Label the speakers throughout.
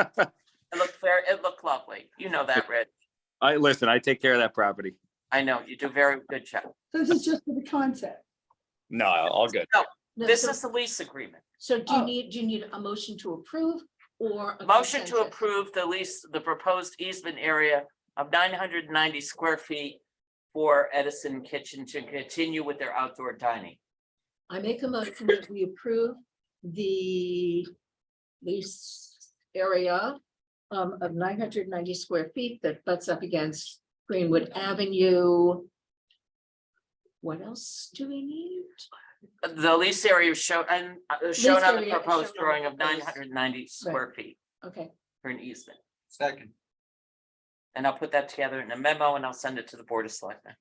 Speaker 1: It looked very, it looked lovely. You know that, Rich.
Speaker 2: I, listen, I take care of that property.
Speaker 1: I know, you do very good job.
Speaker 3: This is just for the concept.
Speaker 2: No, all good.
Speaker 4: No,
Speaker 1: This
Speaker 4: so-
Speaker 1: is the lease agreement.
Speaker 4: So do you
Speaker 3: Oh.
Speaker 4: need, do you need a motion to approve or? a
Speaker 1: Motion to
Speaker 4: consensus?
Speaker 1: approve the lease, the proposed easement area of nine hundred and ninety square feet for Edison Kitchen to continue with their outdoor dining.
Speaker 4: I make a motion that we approve the lease area um, of nine hundred ninety square feet that butts up against Greenwood Avenue. What else do we need?
Speaker 1: The lease area is shown, and uh, shown on the
Speaker 4: area is
Speaker 1: proposed
Speaker 4: shown on
Speaker 1: drawing
Speaker 4: the
Speaker 1: of nine
Speaker 4: proposed-
Speaker 1: hundred and ninety square feet
Speaker 4: Okay,
Speaker 1: for an easement.
Speaker 5: Second.
Speaker 1: And I'll put that together in a memo and I'll send it to the Board of Selectmen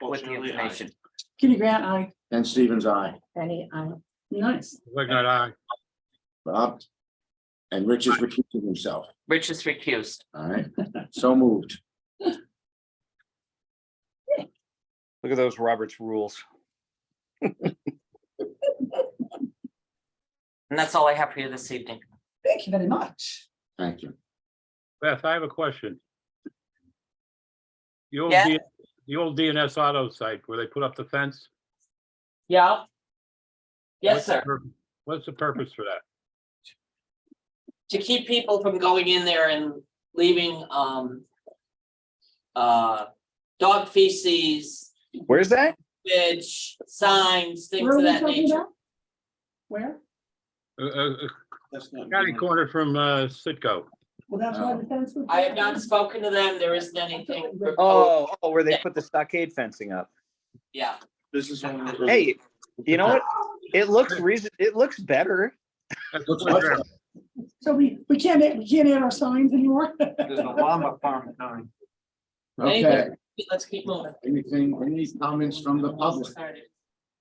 Speaker 1: with the
Speaker 5: Fortunately, I-
Speaker 1: information.
Speaker 3: Kitty Grant, I,
Speaker 6: And Stevens, I,
Speaker 4: any, uh,
Speaker 3: nice.
Speaker 7: Wagner, aye.
Speaker 6: Bob. And Rich is recusing himself.
Speaker 1: Rich is recused.
Speaker 6: All right, so moved.
Speaker 2: Look at those Roberts rules.
Speaker 1: And that's all I have for you this evening.
Speaker 3: Thank you very much.
Speaker 6: Thank you.
Speaker 7: Beth, I have a question. The old,
Speaker 1: Yeah.
Speaker 7: D- the old DNS auto site where they put up the fence?
Speaker 1: Yeah. Yes,
Speaker 7: what's the
Speaker 1: sir.
Speaker 7: pur- What's the purpose for that?
Speaker 1: to keep people from going in there and leaving, um. Uh, dog feces,
Speaker 2: Where's that?
Speaker 1: bitch, signs, things
Speaker 3: Where are
Speaker 1: of
Speaker 3: we
Speaker 1: that
Speaker 3: talking
Speaker 1: nature.
Speaker 3: about? Where?
Speaker 7: Uh, uh, uh,
Speaker 5: That's not-
Speaker 7: County corner from uh, Sitco.
Speaker 3: Well, that's why the fence was.
Speaker 1: I have not spoken to them, there isn't anything. proposed.
Speaker 2: Oh, oh, where they put the stockade fencing up.
Speaker 1: Yeah,
Speaker 5: This is one. of those-
Speaker 2: Hey, you know what? It looks reason, it looks better.
Speaker 7: That's
Speaker 6: Looks
Speaker 7: what's there.
Speaker 3: So we, we can't, add- we can't add our signs anymore?
Speaker 5: There's a llama farm in town.
Speaker 6: Okay,
Speaker 1: let's keep moving.
Speaker 6: anything, any comments from the public?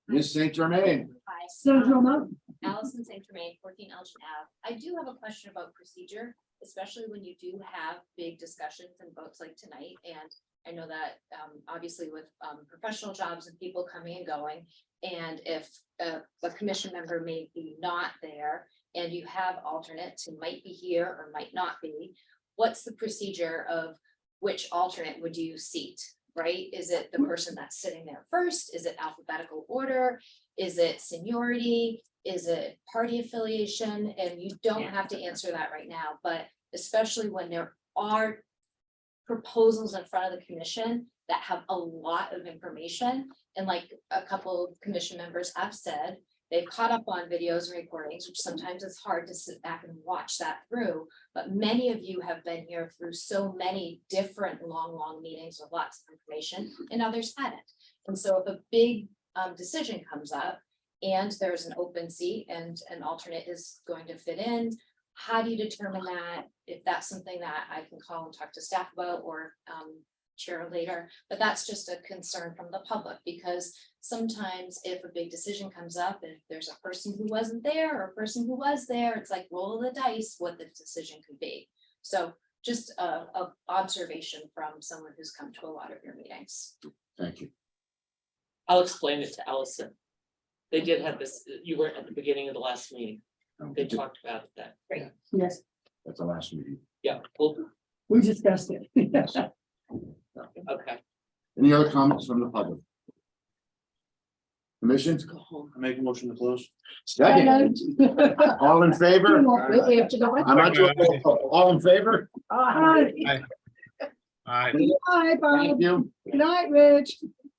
Speaker 6: Miss St. Germain,
Speaker 8: Hi,
Speaker 3: So,
Speaker 8: um,
Speaker 3: no, no.
Speaker 8: Allison St. Germain, fourteen Elgin Ave. I do have a question about procedure, especially when you do have big discussions and votes like tonight. And I know that, um, obviously with, um, professional jobs and people coming and going. And if a, a commission member may be not there and you have alternates who might be here or might not be, what's the procedure of which alternate would you seat, right? Is it the person that's sitting there first? Is it alphabetical order? Is it seniority? Is it party affiliation? And you don't have to answer that right now, but especially when there are proposals in front of the commission that have a lot of information. And like a couple of commission members have said, they've caught up on videos and recordings, which sometimes it's hard to sit back and watch that through. But many of you have been here through so many different long, long meetings with lots of information and others hadn't. And so if a big um decision comes up and there's an open seat and an alternate is going to fit in. How do you determine that? If that's something that I can call and talk to staff about or um chair later, but that's just a concern from the public because sometimes if a big decision comes up and if there's a person who wasn't there or a person who was there, it's like roll of the dice what the decision could be. So just a a observation from someone who's come to a lot of your meetings.
Speaker 6: thank you.
Speaker 1: I'll explain it to Allison. They did have this, you weren't at the beginning of the last meeting, they talked about that.
Speaker 3: Yes,
Speaker 6: Um, At the last meeting.
Speaker 1: Yeah, well,
Speaker 3: we discussed it.
Speaker 6: Yes.
Speaker 1: okay.
Speaker 6: Any other comments from the public? Commission,
Speaker 1: Go home.
Speaker 5: I Make a motion to close.
Speaker 6: second, all in favor?
Speaker 4: Wait, we have to go. in?
Speaker 6: I'm not doing, roll call. all in favor?
Speaker 3: Hi,
Speaker 7: All right.
Speaker 3: hi, Bob.
Speaker 6: Thank you.
Speaker 3: Good night, Rich.